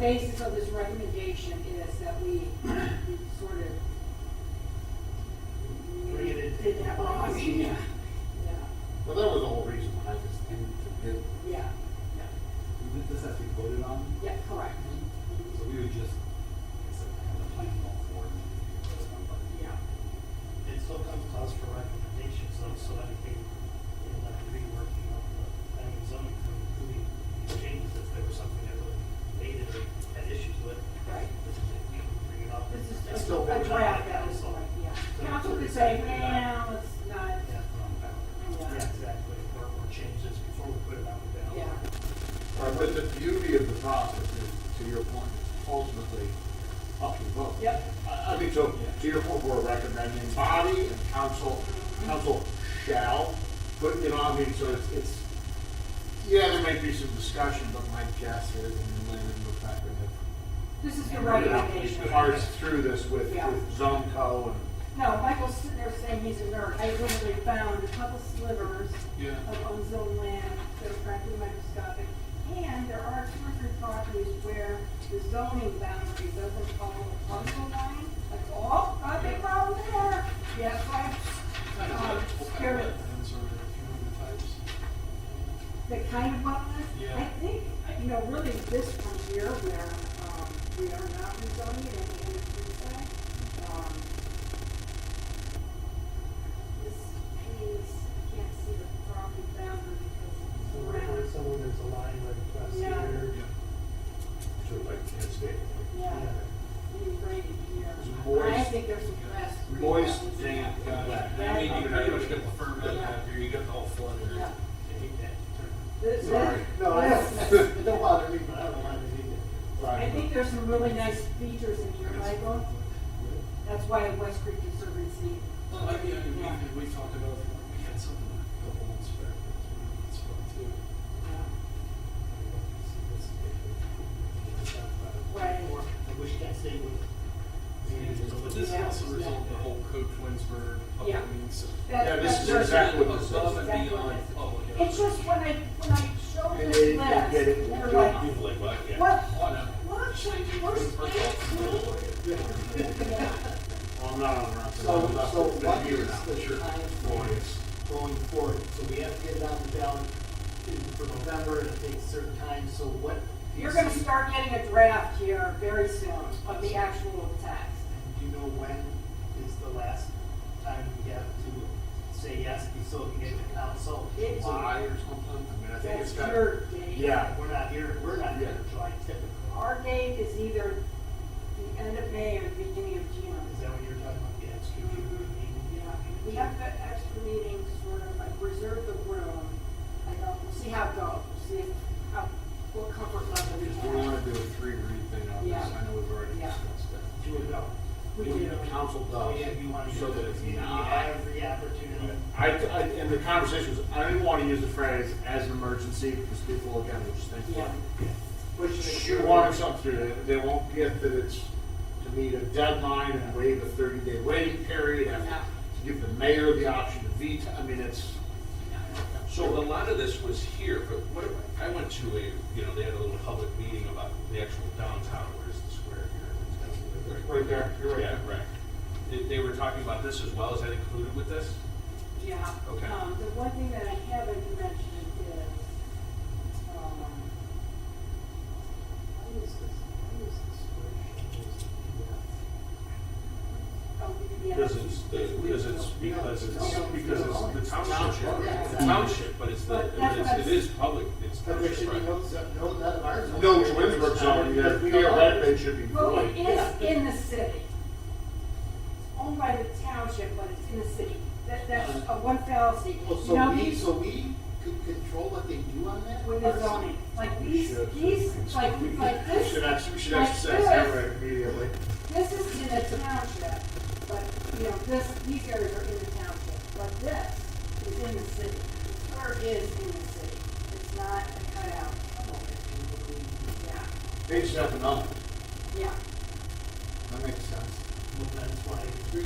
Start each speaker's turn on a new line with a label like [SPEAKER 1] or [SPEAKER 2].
[SPEAKER 1] basis of this recommendation is that we, we sort of.
[SPEAKER 2] Bring it in.
[SPEAKER 1] Did that last year.
[SPEAKER 2] Yeah.
[SPEAKER 1] Yeah,
[SPEAKER 2] Well, that was the whole reason why I just didn't forget.
[SPEAKER 1] yeah,
[SPEAKER 3] This has to be voted on,
[SPEAKER 1] yeah, correct.
[SPEAKER 3] so we would just, like I said, have the plan all forward. and then vote on by the-
[SPEAKER 1] Yeah.
[SPEAKER 4] It still comes to us for recommendations, though, so I think we'll have to be working on the planning and zoning for including these changes if there was something that really made it or had issues with.
[SPEAKER 1] Right.
[SPEAKER 4] This is, we can bring it up.
[SPEAKER 1] This is
[SPEAKER 4] It's
[SPEAKER 1] just
[SPEAKER 4] still
[SPEAKER 1] a
[SPEAKER 4] voted on,
[SPEAKER 1] draft that was,
[SPEAKER 4] so-
[SPEAKER 1] like, yeah.
[SPEAKER 4] so-
[SPEAKER 1] Council
[SPEAKER 4] so
[SPEAKER 1] could
[SPEAKER 4] it's-
[SPEAKER 1] say, well, it's not,
[SPEAKER 4] Yeah,
[SPEAKER 1] Yeah.
[SPEAKER 4] yeah, exactly, or, or change this before we put it on the ballot.
[SPEAKER 1] yeah,
[SPEAKER 2] Right, But the beauty of the process is, to your point, ultimately up to the vote.
[SPEAKER 1] Yep.
[SPEAKER 2] I I mean, so, to your point, we're recommending body and council,
[SPEAKER 1] Mm-hmm.
[SPEAKER 2] council shall, but, you know, I mean, so it's, it's, yeah, there might be some discussion, but my guess is, and Lynn and Rebecca
[SPEAKER 1] this is the
[SPEAKER 2] have. you know,
[SPEAKER 1] recommendation.
[SPEAKER 2] Parsed through this with,
[SPEAKER 1] Yeah.
[SPEAKER 2] with zone co and.
[SPEAKER 1] No, Michael's sitting there saying he's a nerd. I literally found a couple slivers
[SPEAKER 2] Yeah.
[SPEAKER 1] of unzoned land that are frankly microscopic. And there are two or three properties where the zoning boundary doesn't follow the parcel line. Like, oh, not a big problem there. Yes, right. Um, here it- The kind of wetlands, I
[SPEAKER 5] Yeah.
[SPEAKER 1] think, you know, really this one here where, um, we are not rezoning it and we understand that, um, this piece, I can't see the property boundary
[SPEAKER 4] So
[SPEAKER 1] because
[SPEAKER 4] right where
[SPEAKER 1] it's around.
[SPEAKER 4] someone, there's a line right across
[SPEAKER 1] Yeah.
[SPEAKER 4] here.
[SPEAKER 2] So like, can't state.
[SPEAKER 1] Yeah, you right here.
[SPEAKER 2] It's
[SPEAKER 1] I
[SPEAKER 2] moist.
[SPEAKER 1] think there's some grass.
[SPEAKER 2] Moist, damp, and wet.
[SPEAKER 1] Yeah.
[SPEAKER 5] I mean, you pretty much got the ferment out here, you got the whole flooded.
[SPEAKER 1] Yeah.
[SPEAKER 4] I hate that term.
[SPEAKER 1] This-
[SPEAKER 2] Sorry.
[SPEAKER 1] this-
[SPEAKER 2] No, I
[SPEAKER 1] this-
[SPEAKER 2] don't, it don't bother me, but I don't mind it either.
[SPEAKER 1] I think there's some really nice features in here, Michael. That's why West Creek Conservancy.
[SPEAKER 5] Well, I mean, we, we talked about, we had something a couple months back, it's fun too.
[SPEAKER 1] Right.
[SPEAKER 4] Or, I wish that stayed with.
[SPEAKER 5] But this also resolved the whole Code Twinsburg public
[SPEAKER 1] Yeah.
[SPEAKER 5] meeting, so.
[SPEAKER 1] That-
[SPEAKER 2] Yeah, this
[SPEAKER 1] that's
[SPEAKER 2] is
[SPEAKER 1] just-
[SPEAKER 2] exactly what this is.
[SPEAKER 5] Above and
[SPEAKER 1] Exactly what
[SPEAKER 5] beyond
[SPEAKER 1] this is.
[SPEAKER 5] public.
[SPEAKER 1] It's just when I, when I showed
[SPEAKER 2] And
[SPEAKER 1] this
[SPEAKER 2] they- they
[SPEAKER 1] list,
[SPEAKER 2] get it.
[SPEAKER 1] they're like,
[SPEAKER 5] like,
[SPEAKER 1] what,
[SPEAKER 5] what? Oh, no.
[SPEAKER 1] what should I do? Where's
[SPEAKER 5] Twinsburg
[SPEAKER 1] my-
[SPEAKER 5] Public.
[SPEAKER 1] Yeah.
[SPEAKER 2] Well, I'm not on record.
[SPEAKER 6] So, so what
[SPEAKER 2] You're
[SPEAKER 6] is
[SPEAKER 2] not.
[SPEAKER 6] the time
[SPEAKER 2] Glorious.
[SPEAKER 6] going forward? So we have to get it on the ballot in- for November, and it takes certain time, so what? do you
[SPEAKER 1] You're gonna
[SPEAKER 6] see-
[SPEAKER 1] start getting a draft here very soon of the actual text.
[SPEAKER 6] and Do you know when is the last time we have to say yes, be so we can get to council?
[SPEAKER 1] It's-
[SPEAKER 2] July or something, I mean, I think
[SPEAKER 1] That's
[SPEAKER 2] it's got.
[SPEAKER 1] your date.
[SPEAKER 2] Yeah.
[SPEAKER 6] We're not here, we're not here in July typically.
[SPEAKER 1] Our date is either the end of May or the beginning of
[SPEAKER 6] Is
[SPEAKER 1] June.
[SPEAKER 6] that what you're talking about, the extra meeting?
[SPEAKER 1] Yeah, we have that extra meeting to sort of, like, reserve the room. I don't, we'll see how it goes, we'll see if- how, what comfort level we
[SPEAKER 2] If we wanna
[SPEAKER 1] have.
[SPEAKER 2] do a three read thing on this,
[SPEAKER 1] Yeah.
[SPEAKER 2] I know we've already
[SPEAKER 1] Yeah.
[SPEAKER 2] discussed that.
[SPEAKER 6] Do it now.
[SPEAKER 1] We
[SPEAKER 2] If
[SPEAKER 1] do.
[SPEAKER 2] The council
[SPEAKER 6] Oh, yeah,
[SPEAKER 2] does,
[SPEAKER 6] you want to.
[SPEAKER 2] so that it's
[SPEAKER 6] You
[SPEAKER 2] not.
[SPEAKER 6] have every opportunity.
[SPEAKER 2] I, I, in the conversations, I didn't wanna use the phrase as an emergency, because people again will just think,
[SPEAKER 1] Yeah.
[SPEAKER 6] Push it.
[SPEAKER 2] shoot water something through it, they won't get that it's to meet a deadline and waive a thirty day waiting period, and
[SPEAKER 1] Yeah.
[SPEAKER 2] to give the mayor the option to veto, I mean, it's.
[SPEAKER 5] So a lot of this was here, but what, I went to a, you know, they had a little public meeting about the actual downtown, where's the square here?
[SPEAKER 2] Right there, you're right.
[SPEAKER 5] Yeah, right. They, they were talking about this as well, is that included with this?
[SPEAKER 1] Yeah.
[SPEAKER 5] Okay.
[SPEAKER 1] Um, the one thing that I haven't mentioned is, um, I use this, I use this Oh, yeah.
[SPEAKER 5] Because it's, the- because it's, because it's, because it's the township, the township, but it's the,
[SPEAKER 1] But that's what I'm-
[SPEAKER 5] it's- it is public, it's
[SPEAKER 6] But there
[SPEAKER 5] township,
[SPEAKER 6] should be
[SPEAKER 5] right?
[SPEAKER 6] no, no, none of ours.
[SPEAKER 2] No, Twinsburg zone, yeah,
[SPEAKER 6] We don't-
[SPEAKER 2] theoretically, it should be
[SPEAKER 1] Well, it
[SPEAKER 2] void.
[SPEAKER 1] is in the city. It's Owned by the township, but it's in the city. That, that's a one fallacy.
[SPEAKER 6] Well,
[SPEAKER 1] You know,
[SPEAKER 6] so we,
[SPEAKER 1] these-
[SPEAKER 6] so we could control what they do on that?
[SPEAKER 1] With the zoning, like
[SPEAKER 2] We
[SPEAKER 1] these,
[SPEAKER 2] should.
[SPEAKER 1] these, like, like
[SPEAKER 2] We
[SPEAKER 1] this,
[SPEAKER 2] should actually, we should
[SPEAKER 1] like
[SPEAKER 2] exercise that right immediately.
[SPEAKER 1] this is in the township, but, you know, this, these areas are in the township, but this is in the city. The Square is in the city. It's not a cutout. Yeah,
[SPEAKER 2] Page seven up,
[SPEAKER 1] yeah.
[SPEAKER 2] that makes sense.
[SPEAKER 6] Well, that's why